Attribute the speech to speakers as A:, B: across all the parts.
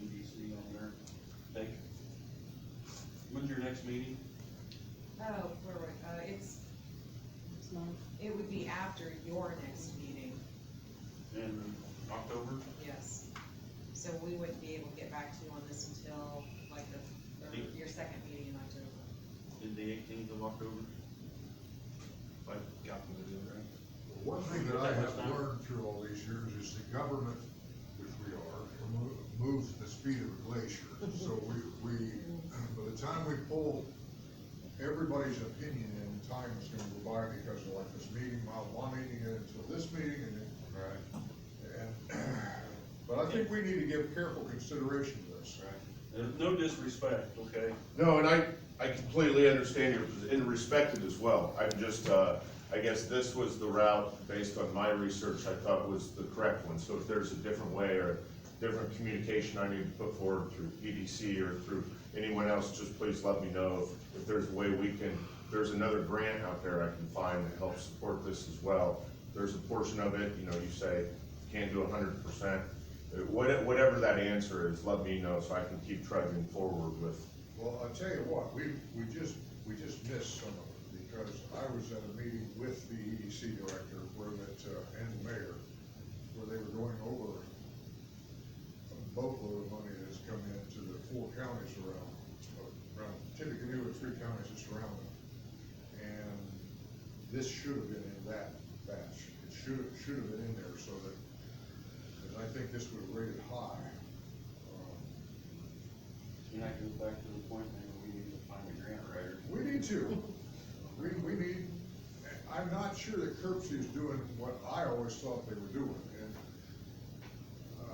A: E
B: next meeting?
C: Oh, where were, uh, it's,
D: It's not-
C: it would be after your next meeting,
B: In October?
C: yes. So we wouldn't be able to get back to you on this until like the, third- your second meeting in October.
B: Is the eighteenth of October? If I calculated it right.
E: One thing that I
B: That much
E: have
B: time?
E: learned through all these years is the government, which we are, mo- moves at the speed of a glacier. So we, we, by the time we pull everybody's opinion in, time is gonna go by because of like this meeting, my one meeting, and until this meeting, and then.
B: Right.
E: and- But I think we need to give careful consideration to this.
A: Uh,
B: There's no disrespect, okay?
F: No, and I, I completely understand your, posi- and respect it as well. I'm just, uh, I guess this was the route, based on my research, I thought was the correct one. So if there's a different way or different communication I need to put forward through EDC or through anyone else, just please let me know if- if there's a way we can, there's another grant out there I can find that helps support this as well. There's a portion of it, you know, you say, can't do hundred percent. Whatever that answer is, let me know so I can keep trudging forward with
E: Well, I'll tell you what, we, we just, we just missed some of it, because I was at a meeting with the EDC director where that, uh, and the mayor, where they were going over a boatload of money that's come into the four counties around, uh, around Tippecanoe and three counties that surround them. And this should have been in that batch, it should, have- should have been in there so that, because I think this would have rated high. Um,
A: And that goes back to the point, maybe we need to find a grant writer.
E: We need to. We, we need, I'm not sure that Curbsy is doing what I always thought they were doing, and, uh,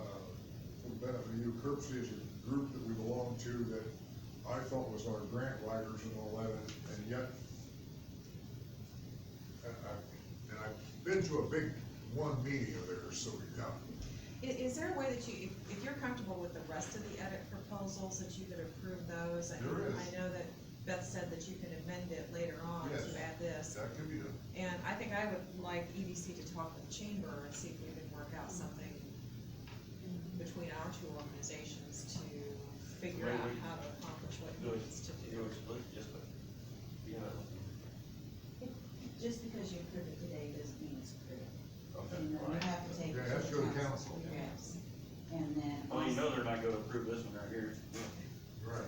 E: for the benefit of you, Curbsy is a group that we belong to that I thought was our grant writers and all that, and- and yet, and I, and I've been to a big one meeting of theirs, so we got,
C: I- Is, there a way that you, if, if you're comfortable with the rest of the edit proposals, that you could approve those? And
E: There is.
C: I know that Beth said that you can amend it later on
E: Yes.
C: to add this.
E: that could be done.
C: And I think I would like EDC to talk with Chamber and see if we can work out something between our two organizations to figure
B: Right,
C: out
B: we-
C: how to accomplish what
B: Do
C: he
B: it.
C: needs to
B: Do
C: do.
B: it, split, yes, but, you know.
D: Just because you approve it today doesn't mean it's approved.
B: Okay.
D: You know, you have to take.
E: Yeah,
D: it
E: that's go to council.
C: Yes.
D: And then.
A: Well, you know they're not gonna approve this one right here.
E: Right.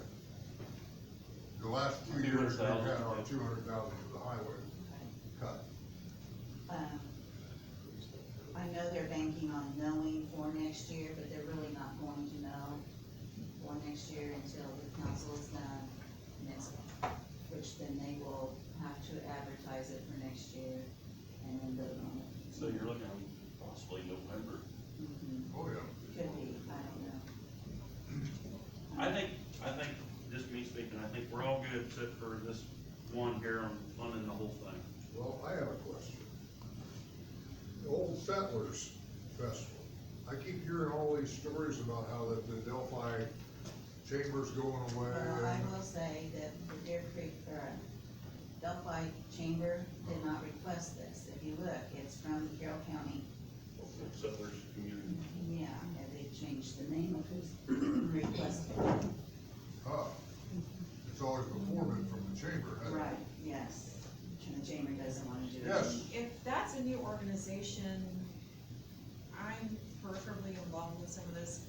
E: The last two years, we've had our two hundred thousand for the highway cut.
D: Um, I know they're banking on knowing for next year, but they're really not going to know for next year until the council is done next, which then they will have to advertise it for next year and then vote on it.
A: So you're looking possibly November.
D: Mhm.
E: Oh, yeah.
D: Could be, I don't know.
A: I think, I think, just me speaking, I think we're all good except for this one here on funding the whole thing.
E: Well, I have a question. The Old Settlers Festival, I keep hearing all these stories about how that the Delphi Chamber's going away.
D: Well, I will say that the Deer Creek, or Delphi Chamber did not request this. If you look, it's from Carroll County.
B: Settlers community.
D: Yeah, and they changed the name of who's requested. it.
E: Huh. It's always the foreman from the chamber, hasn't it?
D: Right, yes. And the chamber doesn't wanna do it.
E: Yes.
C: If that's a new organization, I'm peripherally involved with some of this.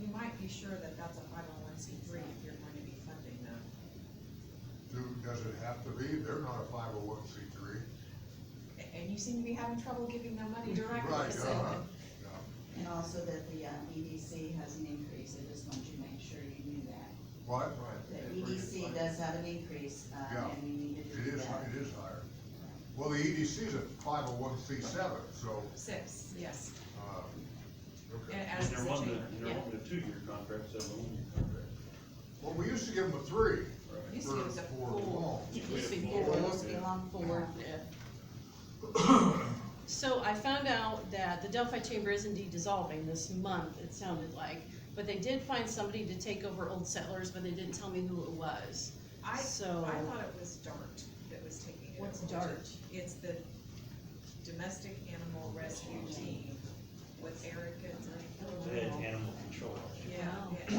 C: You might be sure that that's a five oh one C three if you're going to be funding them.
E: Do, does it have to be? They're not a five oh one C three.
C: A- And you seem to be having trouble giving them money directly,
E: Right, uh-huh,
C: so.
E: yeah.
D: And also that the uh, EDC has an increase, I just want you to make sure you knew that.
E: What?
D: The EDC does have an increase, uh,
E: Yeah.
D: and we need to
E: It
D: do
E: is,
D: that.
E: it is higher. Well, the EDC is a five oh one C seven, so,
C: Six, yes,
E: uh, okay.
C: and
A: And
C: as is
A: they're
C: the
A: wanting,
C: chamber,
A: a-
C: yeah.
A: they're wanting a two-year contract, so um, a one-year contract.
E: Well, we used to give them a three.
C: You see,
E: for-
C: it was a
E: for
C: four.
E: long.
G: It used to be
D: It
G: four.
D: will be on four.
G: Yeah. So I found out that the Delphi Chamber is indeed dissolving this month, it sounded like. But they did find somebody to take over Old Settlers, but they didn't tell me who it was.
C: I, I
G: So-
C: thought it was DART that was taking it.
G: What's
C: over.
G: DART?
C: It's the Domestic Animal Rescue Team with Erica.
H: They had animal control.
C: Yeah,
G: Wow.
C: yeah.